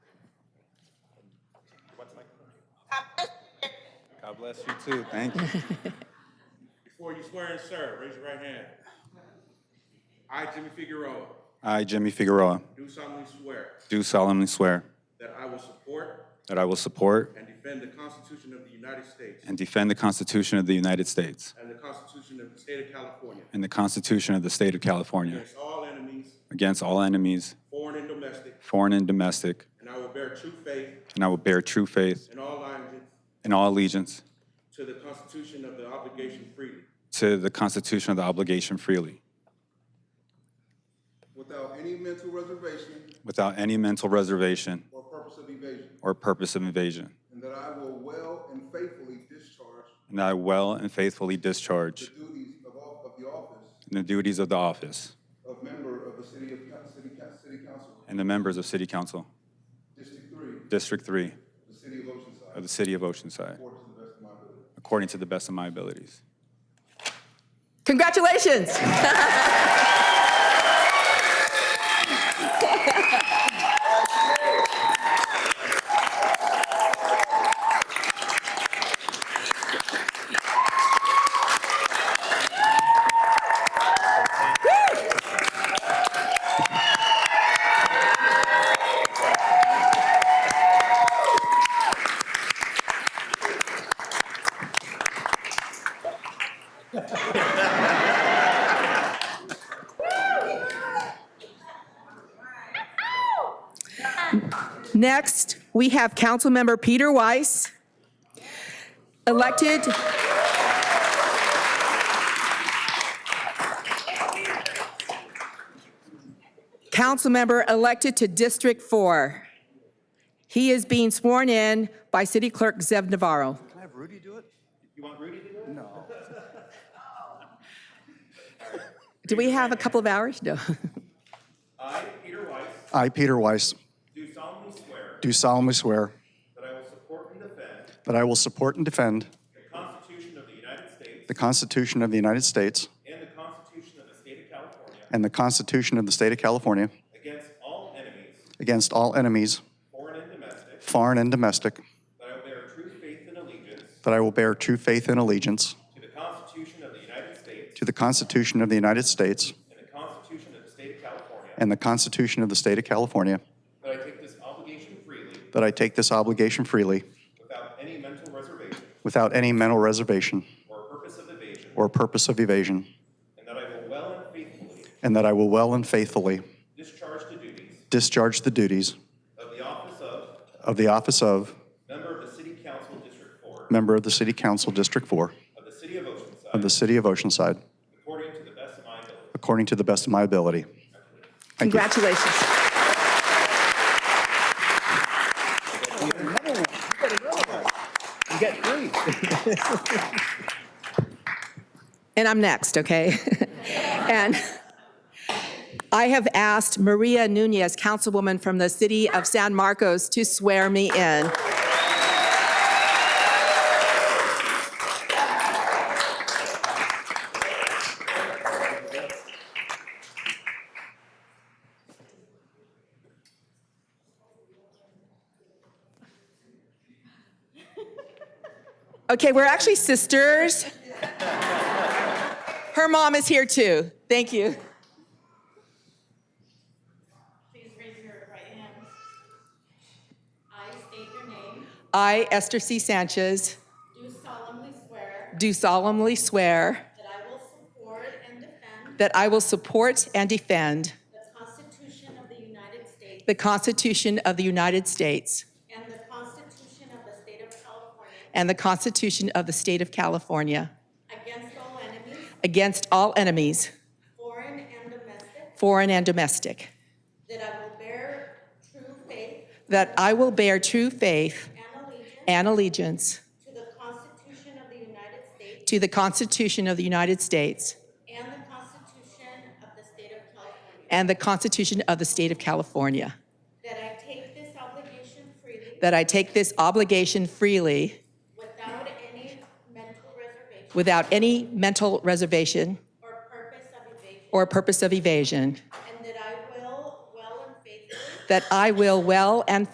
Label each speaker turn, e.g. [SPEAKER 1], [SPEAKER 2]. [SPEAKER 1] bless you too. Thank you.
[SPEAKER 2] Before you swear and serve, raise your right hand. I, Jimmy Figueroa,
[SPEAKER 1] I, Jimmy Figueroa,
[SPEAKER 2] do solemnly swear
[SPEAKER 1] do solemnly swear
[SPEAKER 2] that I will support
[SPEAKER 1] that I will support
[SPEAKER 2] and defend the Constitution of the United States
[SPEAKER 1] and defend the Constitution of the United States
[SPEAKER 2] and the Constitution of the State of California
[SPEAKER 1] and the Constitution of the State of California
[SPEAKER 2] against all enemies,
[SPEAKER 1] against all enemies,
[SPEAKER 2] foreign and domestic,
[SPEAKER 1] foreign and domestic,
[SPEAKER 2] and I will bear true faith
[SPEAKER 1] and I will bear true faith
[SPEAKER 2] and all allegiance
[SPEAKER 1] and all allegiance
[SPEAKER 2] to the Constitution of the obligation freely,
[SPEAKER 1] to the Constitution of the obligation freely,
[SPEAKER 3] without any mental reservation
[SPEAKER 1] without any mental reservation
[SPEAKER 3] or purpose of evasion,
[SPEAKER 1] or purpose of invasion,
[SPEAKER 3] and that I will well and faithfully discharge
[SPEAKER 1] and that I will and faithfully discharge
[SPEAKER 3] the duties of off- of the office
[SPEAKER 1] the duties of the office
[SPEAKER 3] of member of the City of, City Coun- City Council,
[SPEAKER 1] and the members of City Council,
[SPEAKER 3] District Three,
[SPEAKER 1] District 3
[SPEAKER 3] the City of Oceanside,
[SPEAKER 1] of the City of Oceanside,
[SPEAKER 3] according to the best of my ability.
[SPEAKER 1] according to the best of my abilities.
[SPEAKER 4] Congratulations. Next, we have Councilmember Peter Weiss, elected. Councilmember elected to District 4. He is being sworn in by City Clerk Zev Navarro.
[SPEAKER 5] Can I have Rudy do it? You want Rudy to do it? No.
[SPEAKER 4] Do we have a couple of hours? No.
[SPEAKER 2] I, Peter Weiss,
[SPEAKER 5] I, Peter Weiss,
[SPEAKER 2] do solemnly swear
[SPEAKER 5] do solemnly swear
[SPEAKER 2] that I will support and defend
[SPEAKER 5] that I will support and defend
[SPEAKER 2] the Constitution of the United States
[SPEAKER 5] the Constitution of the United States
[SPEAKER 2] and the Constitution of the State of California
[SPEAKER 5] and the Constitution of the State of California
[SPEAKER 2] against all enemies,
[SPEAKER 5] against all enemies,
[SPEAKER 2] foreign and domestic,
[SPEAKER 5] foreign and domestic,
[SPEAKER 2] that I will bear true faith and allegiance
[SPEAKER 5] that I will bear true faith and allegiance
[SPEAKER 2] to the Constitution of the United States
[SPEAKER 5] to the Constitution of the United States
[SPEAKER 2] and the Constitution of the State of California,
[SPEAKER 5] and the Constitution of the State of California,
[SPEAKER 2] that I take this obligation freely
[SPEAKER 5] that I take this obligation freely
[SPEAKER 2] without any mental reservation
[SPEAKER 5] without any mental reservation
[SPEAKER 2] or purpose of evasion,
[SPEAKER 5] or purpose of evasion,
[SPEAKER 2] and that I will well and faithfully
[SPEAKER 5] and that I will well and faithfully
[SPEAKER 2] discharge the duties
[SPEAKER 5] discharge the duties
[SPEAKER 2] of the office of
[SPEAKER 5] of the office of
[SPEAKER 2] member of the City Council District 4
[SPEAKER 5] member of the City Council District 4
[SPEAKER 2] of the City of
[SPEAKER 5] of the
[SPEAKER 2] Oceanside
[SPEAKER 5] City of Oceanside,
[SPEAKER 2] according to the best of my ability.
[SPEAKER 5] according to the best of my ability. Thank you.
[SPEAKER 4] Congratulations. And I'm next, okay? And I have asked Maria Nunez, Councilwoman from the City of San Marcos, to swear me in. Okay, we're actually sisters. Her mom is here too. Thank you.
[SPEAKER 6] Please raise your right hand. I state your name,
[SPEAKER 4] I, Esther C. Sanchez,
[SPEAKER 6] do solemnly swear
[SPEAKER 4] do solemnly swear
[SPEAKER 6] that I will support and defend
[SPEAKER 4] that I will support and defend
[SPEAKER 6] the Constitution of the United States
[SPEAKER 4] the Constitution of the United States
[SPEAKER 6] and the Constitution of the State of California
[SPEAKER 4] and the Constitution of the State of California
[SPEAKER 6] against all enemies,
[SPEAKER 4] against all enemies,
[SPEAKER 6] foreign and domestic,
[SPEAKER 4] foreign and domestic,
[SPEAKER 6] that I will bear true faith
[SPEAKER 4] that I will bear true faith
[SPEAKER 6] and allegiance
[SPEAKER 4] and allegiance
[SPEAKER 6] to the Constitution of the United States
[SPEAKER 4] to the Constitution of the United States
[SPEAKER 6] and the Constitution of the State of California,
[SPEAKER 4] and the Constitution of the State of California,
[SPEAKER 6] that I take this obligation freely
[SPEAKER 4] that I take this obligation freely
[SPEAKER 6] without any mental reservation
[SPEAKER 4] without any mental reservation
[SPEAKER 6] or purpose of evasion,
[SPEAKER 4] or purpose of evasion,
[SPEAKER 6] and that I will well and faithfully
[SPEAKER 4] that I will well and